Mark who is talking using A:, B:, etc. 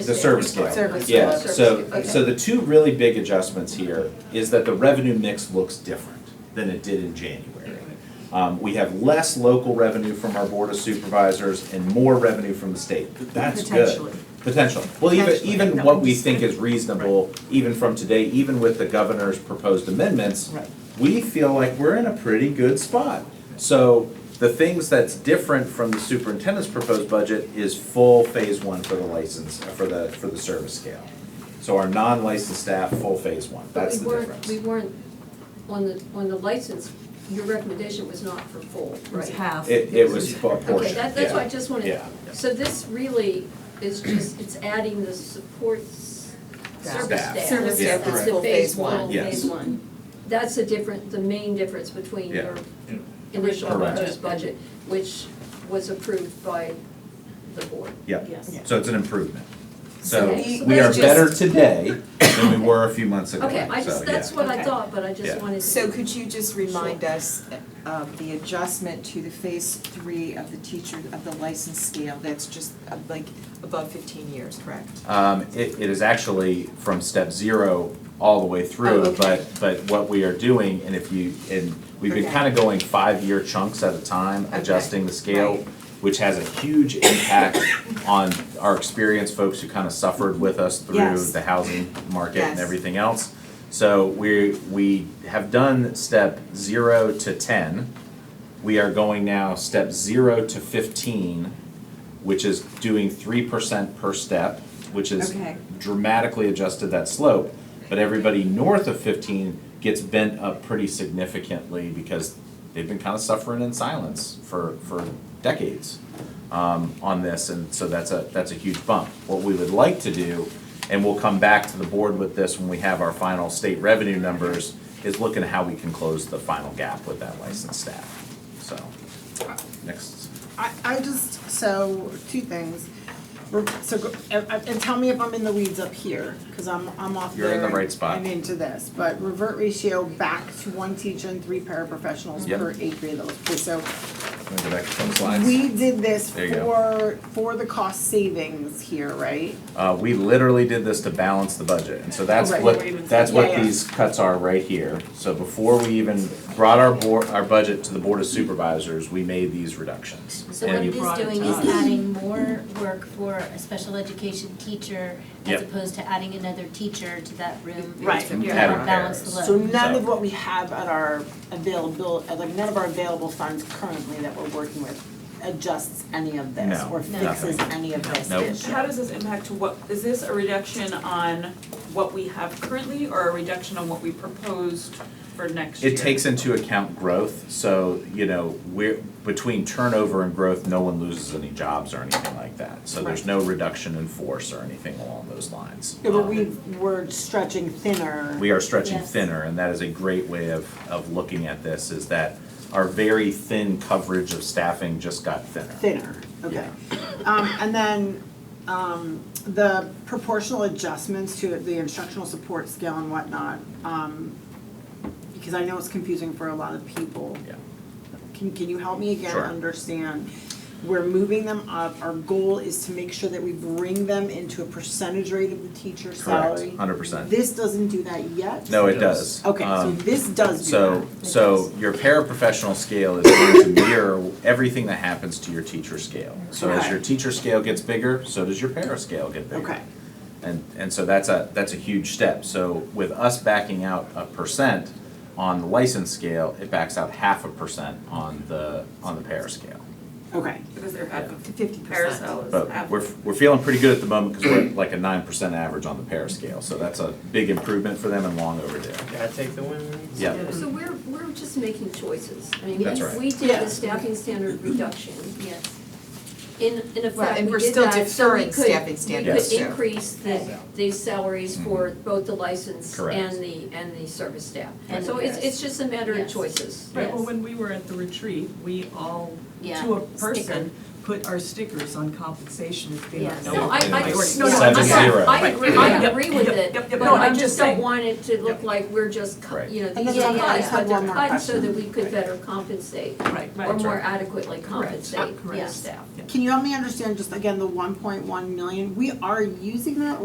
A: The service scale.
B: Service
A: Yeah,
B: scale.
A: so,
B: Okay.
A: so the two really big adjustments here is that the revenue mix looks different than it did in January. Um, we have less local revenue from our Board of Supervisors and more revenue from the state. That's
B: Potentially.
A: good. Potential. Well, even,
B: Potentially,
A: even
B: no,
A: what
B: I'm
A: we
B: just-
A: think is reasonable, even from today, even with the governor's proposed amendments,
B: Right.
A: we feel like we're in a pretty good spot. So the things that's different from the superintendent's proposed budget is full phase one for the license, uh, for the, for the service scale. So our non-licensed staff, full phase one,
C: But
A: that's
C: we
A: the
C: weren't, we
A: difference.
C: weren't, on the, on the license, your recommendation was not for full,
B: It was
C: right?
B: half.
A: It, it was a
C: Okay,
A: portion,
C: that, that's why I
A: yeah.
C: just wanted,
A: Yeah.
C: so this really is just, it's adding the support s-
B: Staff.
C: service
A: Staff.
C: staff.
B: Service
A: Yeah.
B: staff
C: It's
B: is
C: the
B: full
C: phase
B: phase one.
C: one,
A: Yes.
C: phase one. That's the different, the main difference between
A: Yeah.
C: your initial
A: Correct.
C: proposed budget, which was approved by the board.
A: Yeah,
B: Yes.
A: so it's an improvement. So
C: Okay, so
A: we are
B: let's just-
A: better today than we were a few months ago,
C: Okay, I
A: so,
C: just,
A: yeah.
C: that's what I
D: Okay.
C: thought, but I just
A: Yeah.
C: wanted to.
D: So could you just remind us of the adjustment to the phase three of the teacher, of the license scale, that's just uh, like above fifteen years, correct?
A: Um, it, it is actually from step zero all the way
D: Oh,
A: through,
D: okay.
A: but, but what we are doing, and if you, and we've been
D: Okay.
A: kind of going five-year chunks at a time,
D: Okay.
A: adjusting the scale,
D: Right.
A: which has a huge impact on our experienced folks who kind of suffered with us through
D: Yes.
A: the housing market and
D: Yes.
A: everything else. So we, we have done step zero to ten. We are going now step zero to fifteen, which is doing three percent per step, which is
D: Okay.
A: dramatically adjusted that slope. But everybody north of fifteen gets bent up pretty significantly because they've been kind of suffering in silence for, for decades um, on this, and so that's a, that's a huge bump. What we would like to do, and we'll come back to the board with this when we have our final state revenue numbers, is look at how we can close the final gap with that licensed staff, so, next.
E: I, I just, so, two things. We're- So, go- and, and tell me if I'm in the weeds up here, cause I'm, I'm off
A: You're
E: there.
A: in the right
E: and-
A: spot.
E: And into this, but revert ratio back to one teacher and three paraprofessionals
A: Yep.
E: per eight grade level. Okay, So,
A: Wanna go back to some slides?
E: we did this
A: There you go.
E: for, for the cost savings here, right?
A: Uh, we literally did this to balance the budget, and so that's
E: Right.
A: what, that's what
E: Yeah, yeah.
A: these cuts are right here. So before we even brought our board, our budget to the Board of Supervisors, we made these reductions.
F: So what
A: And
F: it is
B: brought it
F: doing
B: to
F: is
B: us.
F: adding more work for a special education teacher as
A: Yep. Mm-hmm.
F: opposed to adding another teacher to that room.
E: Right,
F: To
E: yeah.
F: help balance
A: Having
F: the
E: So
F: load.
E: none of
A: So-
E: what we have at our available, uh, like none of our available funds currently that we're working with adjusts any of this
A: No,
E: or
A: No.
E: fixes any of this
A: Nope.
E: issue.
G: How does this impact to what, is this a reduction on what we have currently or a reduction on what we proposed for next year?
A: It takes into account growth, so, you know, we're, between turnover and growth, no one loses any jobs or anything like that. So there's
E: Right.
A: no reduction in force or anything along those lines.
E: Yeah, but
A: Um,
E: we were stretching thinner.
A: we are stretching
F: Yes.
A: thinner, and that is a great way of, of looking at this, is that our very thin coverage of staffing just got thinner.
E: Thinner, okay. Um, and then, um, the proportional adjustments to the instructional support scale and whatnot, um, because I know it's confusing for a lot of people.
A: Yeah.
E: Can, can you help me again
A: Sure.
E: understand? We're moving them up, our goal is to make sure that we bring them into a percentage rate of the teacher's salary.
A: Correct, hundred percent.
E: This doesn't do that yet?
A: No, it does.
E: Okay, so
A: Um,
E: this does do that.
A: So, so your paraprofessional scale is going to mirror everything that happens to your teacher scale. So as
E: Okay.
A: your teacher scale gets bigger, so does your para scale get bigger.
E: Okay.
A: And, and so that's a, that's a huge step. So with us backing out a percent on the license scale, it backs out half a percent on the, on the para scale.
E: Okay,
G: Because they're half of
D: Fifty
G: Paracel is half
A: But
G: of-
A: we're, we're feeling pretty good at the moment because we're at like a nine percent average on the para scale. So that's a big improvement for them and long overdue.
H: Gotta take the win.
A: Yeah.
C: So we're, we're just making choices. I mean,
A: That's right.
C: we did
E: Yeah.
C: the staffing standard reduction.
F: Yes.
C: In, in
D: Well,
C: effect,
D: and
C: we
D: we're
C: did
D: still
C: that, so we
D: deferring
C: could,
D: staffing
C: we
D: standards
C: could
D: too.
C: increase the, the salaries for both the license
A: Mm-hmm. Correct.
C: and the, and the service staff.
F: And
C: So
F: the
C: it's,
F: rest.
C: it's just a matter of
F: Yes.
C: choices.
F: Right, well,
G: when we were at the retreat, we all,
F: Yeah. to a person, Sticker.
G: put our stickers on compensation as being
F: Yeah.
G: our
F: No,
G: number
C: No, I,
G: one
C: I,
G: priority.
C: no, no,
A: Seven
C: I'm
A: zero.
C: sorry, I agree, I
G: Right.
C: agree with
G: Yep,
C: it,
G: yep, yep,
C: but
G: no,
C: I
G: I'm just
C: just don't
G: saying.
C: want it to look
G: Yep.
C: like we're just, co-
A: Right.
C: you know,
E: And
C: these
E: then
C: are
F: I
C: cuts,
E: have
C: but
E: one
C: they're
E: more
C: cuts so
E: question.
C: that we could better compensate,
I: Right,
C: or
I: right.
C: more adequately
G: Correct.
C: compensate,
G: Correct.
C: yeah, staff.
E: Can you help me understand just again the one point one million? We are using that